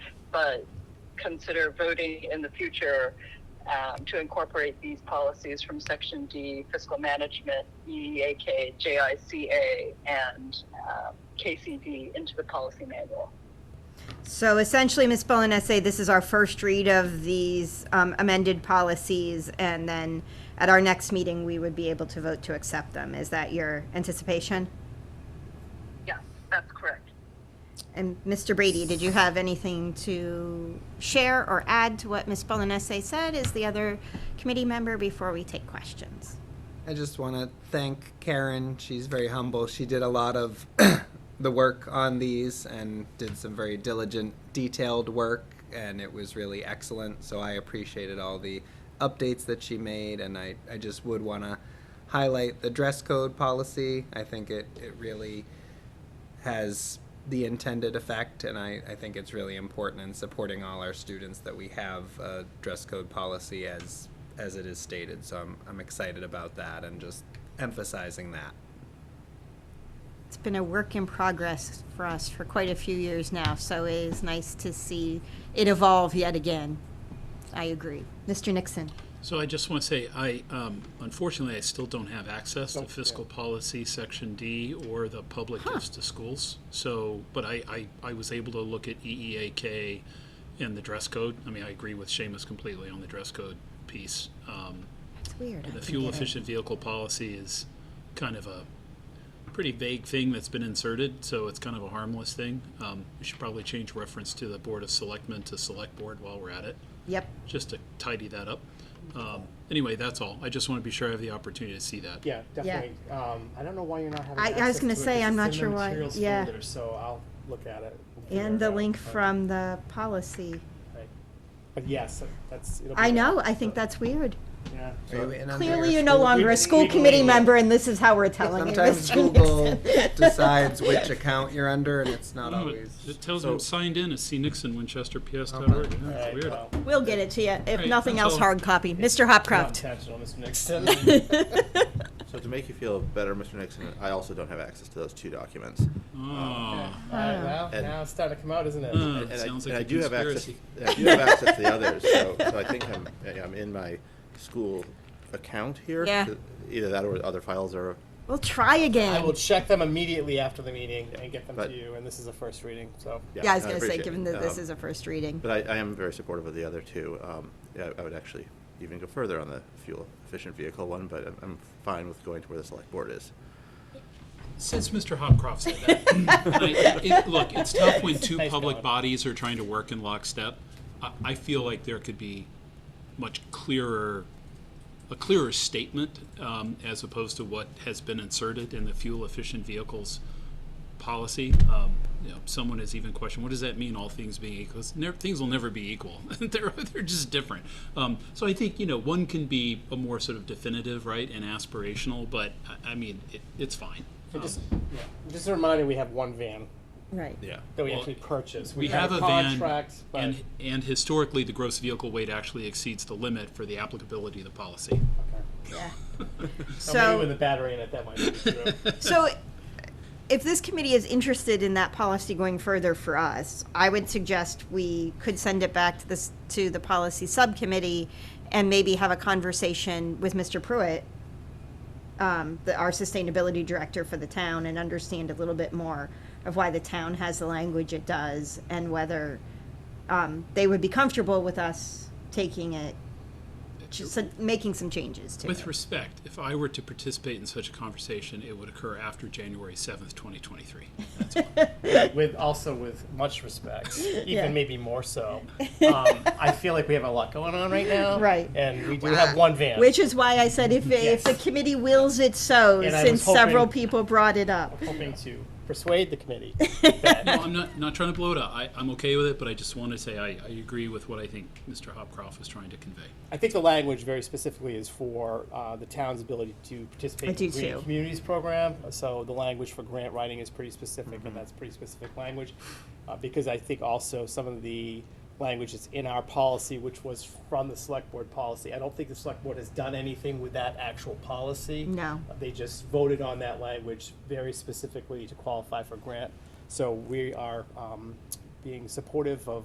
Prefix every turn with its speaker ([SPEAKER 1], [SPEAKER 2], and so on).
[SPEAKER 1] but consider voting in the future um, to incorporate these policies from Section D, fiscal management, E, EEAK, JICA, and um, KCD into the policy manual.
[SPEAKER 2] So essentially, Ms. Bolanese, this is our first read of these um, amended policies, and then at our next meeting, we would be able to vote to accept them. Is that your anticipation?
[SPEAKER 1] Yes, that's correct.
[SPEAKER 2] And Mr. Brady, did you have anything to share or add to what Ms. Bolanese said as the other committee member before we take questions?
[SPEAKER 3] I just want to thank Karen. She's very humble. She did a lot of the work on these and did some very diligent, detailed work, and it was really excellent. So I appreciated all the updates that she made, and I, I just would want to highlight the dress code policy. I think it, it really has the intended effect, and I, I think it's really important in supporting all our students that we have a dress code policy as as it is stated. So I'm I'm excited about that and just emphasizing that.
[SPEAKER 2] It's been a work in progress for us for quite a few years now, so it is nice to see it evolve yet again. I agree. Mr. Nixon?
[SPEAKER 4] So I just want to say, I, um, unfortunately, I still don't have access to fiscal policy, section D, or the public gifts to schools. So, but I, I, I was able to look at E EEAK and the dress code. I mean, I agree with Seamus completely on the dress code piece. Um,
[SPEAKER 2] It's weird. I
[SPEAKER 4] The
[SPEAKER 2] can
[SPEAKER 4] fuel
[SPEAKER 2] get it.
[SPEAKER 4] efficient vehicle policy is kind of a pretty vague thing that's been inserted, so it's kind of a harmless thing. Um, we should probably change reference to the Board of Selectmen to Select Board while we're at it
[SPEAKER 2] Yep.
[SPEAKER 4] just to tidy that up. Um, anyway, that's all. I just want to be sure I have the opportunity to see that.
[SPEAKER 5] Yeah, definitely. Um, I I don't know why you're not having
[SPEAKER 2] I- I was
[SPEAKER 5] access
[SPEAKER 2] gonna
[SPEAKER 5] to it,
[SPEAKER 2] say,
[SPEAKER 5] 'cause
[SPEAKER 2] I'm
[SPEAKER 5] it's
[SPEAKER 2] not
[SPEAKER 5] in the
[SPEAKER 2] sure why-
[SPEAKER 5] materials
[SPEAKER 2] yeah.
[SPEAKER 5] folder, So I'll look at it. figure
[SPEAKER 2] And
[SPEAKER 5] it
[SPEAKER 2] the
[SPEAKER 5] out,
[SPEAKER 2] link
[SPEAKER 5] but-
[SPEAKER 2] from the policy.
[SPEAKER 5] right. But yes, that's. it'll be
[SPEAKER 2] I
[SPEAKER 5] there.
[SPEAKER 2] know, I think that's weird.
[SPEAKER 5] Yeah.
[SPEAKER 2] Clearly, you're no longer a
[SPEAKER 5] committee
[SPEAKER 2] school
[SPEAKER 5] meeting.
[SPEAKER 2] committee member, and this is how we're telling you,
[SPEAKER 3] Sometimes
[SPEAKER 2] Mr.
[SPEAKER 3] Google
[SPEAKER 2] Nixon.
[SPEAKER 3] decides which account you're under, and it's not
[SPEAKER 4] Oh,
[SPEAKER 3] always.
[SPEAKER 4] it, it tells me I'm
[SPEAKER 3] So-
[SPEAKER 4] signed in as C. Nixon, Winchester, PS.
[SPEAKER 3] Oh,
[SPEAKER 4] Tower. Yeah,
[SPEAKER 5] Uh-huh. All
[SPEAKER 4] it's
[SPEAKER 5] right,
[SPEAKER 4] weird.
[SPEAKER 5] well,
[SPEAKER 2] We'll get it to you, if
[SPEAKER 4] Right,
[SPEAKER 2] nothing
[SPEAKER 4] that's
[SPEAKER 2] else,
[SPEAKER 4] all.
[SPEAKER 2] hard copy. Mr.
[SPEAKER 5] not
[SPEAKER 2] Hopcroft.
[SPEAKER 5] intentional, Mr. Nixon.
[SPEAKER 6] So to make you feel better, Mr. Nixon, I also don't have access to those two documents.
[SPEAKER 4] Oh,
[SPEAKER 5] All right, well,
[SPEAKER 6] And-
[SPEAKER 5] now it's starting to come out, isn't it?
[SPEAKER 4] Uh,
[SPEAKER 6] And I-
[SPEAKER 4] sounds
[SPEAKER 6] and
[SPEAKER 4] like a
[SPEAKER 6] I do have access.
[SPEAKER 4] conspiracy.
[SPEAKER 6] and I do have access to the others, so, so I think I'm, I'm in my school account here.
[SPEAKER 2] Yeah.
[SPEAKER 6] Either that or other files are,
[SPEAKER 2] We'll try
[SPEAKER 5] I will
[SPEAKER 2] again.
[SPEAKER 5] check them immediately after the meeting and get them to
[SPEAKER 6] but-
[SPEAKER 5] you, and this is a first reading, so.
[SPEAKER 6] yeah.
[SPEAKER 2] Yeah, I was
[SPEAKER 6] no,
[SPEAKER 2] gonna say,
[SPEAKER 6] appreciate it.
[SPEAKER 2] given that this
[SPEAKER 6] Um,
[SPEAKER 2] is a first reading.
[SPEAKER 6] But I, I am very supportive of the other two. Um, yeah, I would actually even go further on the fuel efficient vehicle one, but I'm, I'm fine with going to where the select board is.
[SPEAKER 4] since Mr. Hopcroft said that, like, it, look, it's tough when two
[SPEAKER 5] Nice
[SPEAKER 4] public
[SPEAKER 5] going.
[SPEAKER 4] bodies are trying to work in lockstep. I, I feel like there could be much clearer, a clearer statement um, as opposed to what has been inserted in the fuel efficient vehicles policy. Um, you know, someone has even questioned, what does that mean, all things being equal? It's never, things will never be equal. they're, they're just different. Um, so I think, you know, one can be a more sort of definitive, right, and aspirational, but I, I mean, it, it's fine.
[SPEAKER 5] And
[SPEAKER 4] Um,
[SPEAKER 5] just, yeah, just a reminder, we have one van
[SPEAKER 2] Right.
[SPEAKER 4] yeah.
[SPEAKER 5] that we
[SPEAKER 4] Well,
[SPEAKER 5] actually purchased.
[SPEAKER 4] We have a van,
[SPEAKER 5] contract, but-
[SPEAKER 4] and, and historically, the gross vehicle weight actually exceeds the limit for the applicability of the policy.
[SPEAKER 5] Okay. So maybe with
[SPEAKER 2] So,
[SPEAKER 5] the battery in it, that might be true.
[SPEAKER 2] so if this committee is interested in that policy going further for us, I would suggest we could send it back to this, to the policy subcommittee and maybe have a conversation with Mr. Pruitt, um, the, our sustainability director for the town, and understand a little bit more of why the town has the language it does and whether, um, they would be comfortable with us taking it, just making some changes to it.
[SPEAKER 4] With respect, if I were to participate in such a conversation, it would occur after January seventh, twenty twenty-three.
[SPEAKER 5] with also with much respect, even
[SPEAKER 2] Yeah.
[SPEAKER 5] maybe more so. Um, I feel like we have a lot going on right now,
[SPEAKER 2] Right.
[SPEAKER 5] And we do have one van,
[SPEAKER 2] Which is why I said if, if the
[SPEAKER 5] Yes.
[SPEAKER 2] committee wills it so,
[SPEAKER 5] And I
[SPEAKER 2] since
[SPEAKER 5] was hoping-
[SPEAKER 2] several people brought it up.
[SPEAKER 5] hoping to persuade the committee.
[SPEAKER 4] No, I'm not, not trying to blow it up. I, I'm okay with it, but I just want to say I, I agree with what I think Mr. Hopcroft was trying to convey.
[SPEAKER 5] I think the language very specifically is for uh, the town's ability to participate
[SPEAKER 2] I
[SPEAKER 5] in
[SPEAKER 2] do
[SPEAKER 5] the Green
[SPEAKER 2] too.
[SPEAKER 5] Communities Program. So the language for grant writing is pretty specific, and that's pretty specific language. Uh, because I think also some of the language that's in our policy, which was from the select board policy, I don't think the select board has done anything with that actual policy.
[SPEAKER 2] No.
[SPEAKER 5] Uh, They just voted on that language very specifically to qualify for grant. So we are um, being supportive of